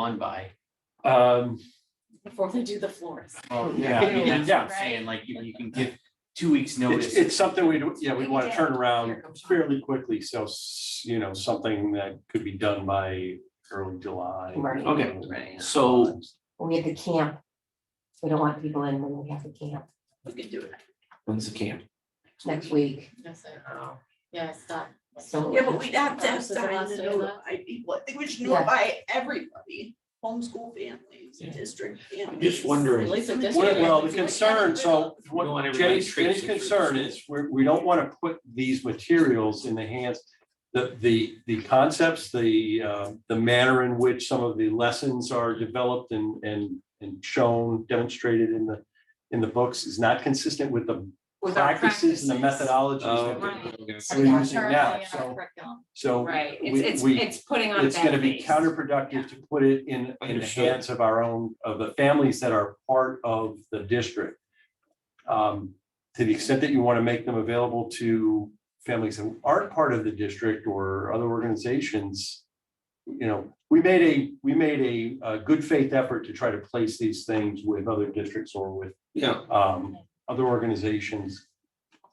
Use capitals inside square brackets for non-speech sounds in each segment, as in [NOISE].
on by. Um, before they do the floors. Well, Oh, Yeah. I mean, that's what I'm Yeah. saying, like, you, you can give two weeks it's, notice. it's something we, do. yeah, we want to turn around Here comes- fairly quickly, so, s- you know, something that could be done by early July. Right. Okay. Right. So, we have the camp. We don't want people in when we have the camp We can do it. when's the camp? next week. Yes, I know. Yeah, stop. So- Yeah, but we'd have to have Versus the time last to day of that. notify people, I think we should Yeah. notify everybody, homeschool families, Yeah. district families. just wondering- At least the district. Well, well, the has to do it. concern, so We don't want what everybody Jay's, Jay's traipsing through the concern school. is, we're, we don't want to put these materials in the hands. The, the, the concepts, the, uh, the manner in which some of the lessons are developed and, and, and shown, demonstrated in the, in the books is not consistent with the With our practices and the practices. Oh. methodologies. that Right. We're Yeah. using Currently now, in our so, curriculum. so. Right, we- we- putting it's gonna be counterproductive to put it in, in the Understood. hands of our own, of the families that are part of the district. Um, to the extent that you wanna make them available to families that aren't part of the district or other organizations. You know, we made a, we made a, uh good faith effort to try to place these things with other districts or with, Yeah, um, other organizations.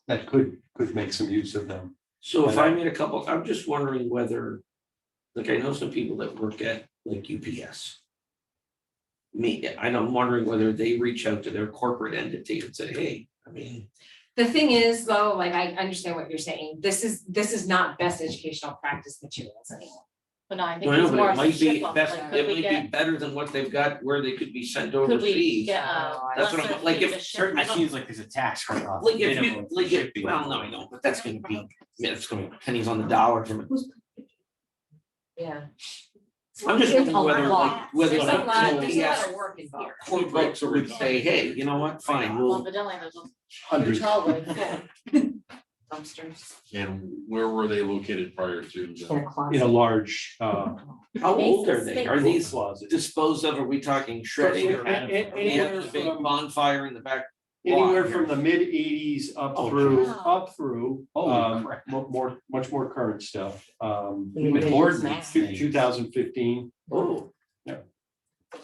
That could, could make some use of them. So if I made a couple, I'm just wondering whether, like, I know some people that work at like UPS. Me, and I'm wondering whether they reach out to their corporate entity and say, hey, I mean, The thing is though, like I understand what you're saying, this is, this is not best educational practice materials anymore. But no, I I think know, it's but more it of a might be ship off, best, like, it could we might be get, better than what they've got where they could be sent could we overseas. get a That's what I'm- lesser like, fee if to ship? certain- I it don't- seems like there's a tax write-off. Like if minimum you, like, if, shipping. well, no, I know, but that's gonna be, yeah, it's gonna be pennies on the dollar from it. Yeah. I'm just There's wondering a whether lot. like, whether There's a lot, there's a lot UPS of work involved. corporate would say, hey, you know what, fine, we'll Well, but definitely there's a Hundreds. trolley full of dumpsters. And where were they located prior to? the- In a closet. In a large, uh, How old are they? Spaces. Are these closet. disposed of? Are we talking shredding or? And- and- Do you have anywhere the big from- bonfire in the back? Anywhere Why? from the mid eighties up Oh, through, wow. up through, Holy um, crap. mo- more, much more current stuff. Um, The revisions ordinance, math. two thousand fifteen, Oh. that would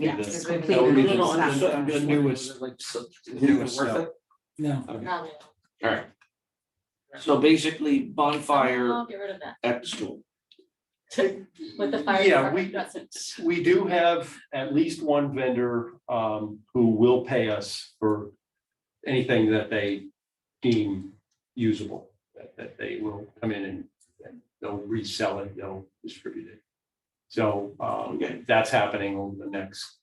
be Yeah, the, it's that completely would be new the- stuff. the, the newest. Like, so, is it Newest worth stuff. it? No, All right. So basically bonfire I'll get rid of that. at the school. With the fire Yeah, we- department, that's it. We do have at least one vendor, um, who will pay us for anything that they deem usable. That, that they will come in and and they'll resell it, they'll distribute it. So, um, Okay. that's happening over the next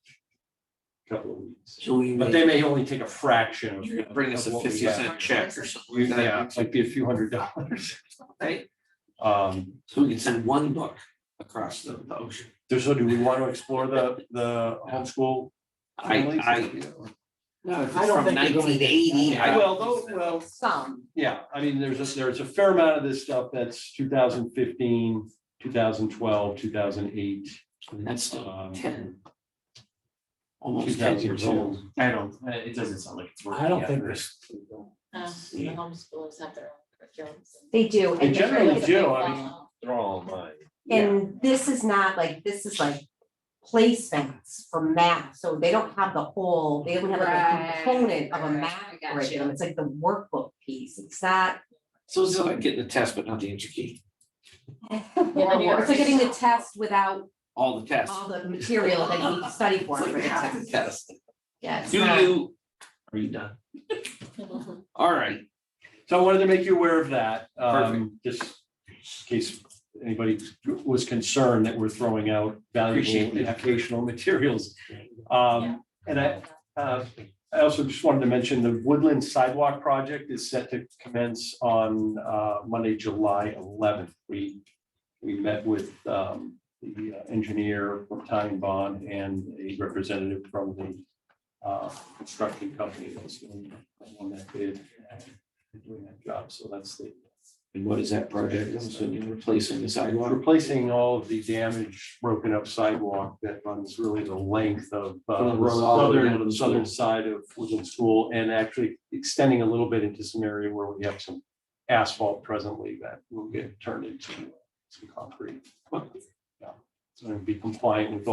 couple of weeks. So we But may they may only take a fraction of. you could bring us of a what we fifty have. cent check or something. like that. Yeah, it might be a few hundred dollars. Right? [LAUGHS] Um, So we can send one book across the the ocean. there's, so do we want to explore the, the homeschool? I, families? I. No, if I it's don't from think they're going to nineteen get eighty, that. I. Well, though, well, Some, yeah, I mean, there's a, there's a fair amount of this stuff that's 2015, 2012, 2008. I mean, That's still um, ten, almost ten years 2002. old. I don't, uh, it doesn't sound like it's worth. I don't the think effort. Uh, The homeschoolers have their own curriculums. they do. They and they're- generally do, I mean, Well, They're all online. And this is not like, this is like placements for math, so they don't have the whole, they don't have like Right, a component of a right, math I got you. curriculum, it's like the workbook piece, it's not. So it's like getting the test, but not the entry key, New York. It's like getting the test without all the tests. all the material that you need to study [LAUGHS] for It's for the like half the test, test. yeah. it's Do not- you? Are you done? All right, So I wanted to make you aware of that, um, just in case anybody was concerned that we're throwing out Appreciate valuable it. educational materials. Um, and I, Uh, I also just wanted to mention the Woodland Sidewalk Project is set to commence on uh, Monday, July eleventh. We, we met with um, the uh, engineer from Time Bond and a representative from the uh, construction company that's doing on that bid. and Doing that job, so that's the, and what is that project? I'm assuming replacing the sidewalk. replacing all of the damaged, broken up sidewalk that runs really the length of From uh, the road all the way down southern, to the southern side of Woodland School and actually extending a little bit into some area where we have some asphalt presently that will get turned into some concrete. Yeah, and be compliant with all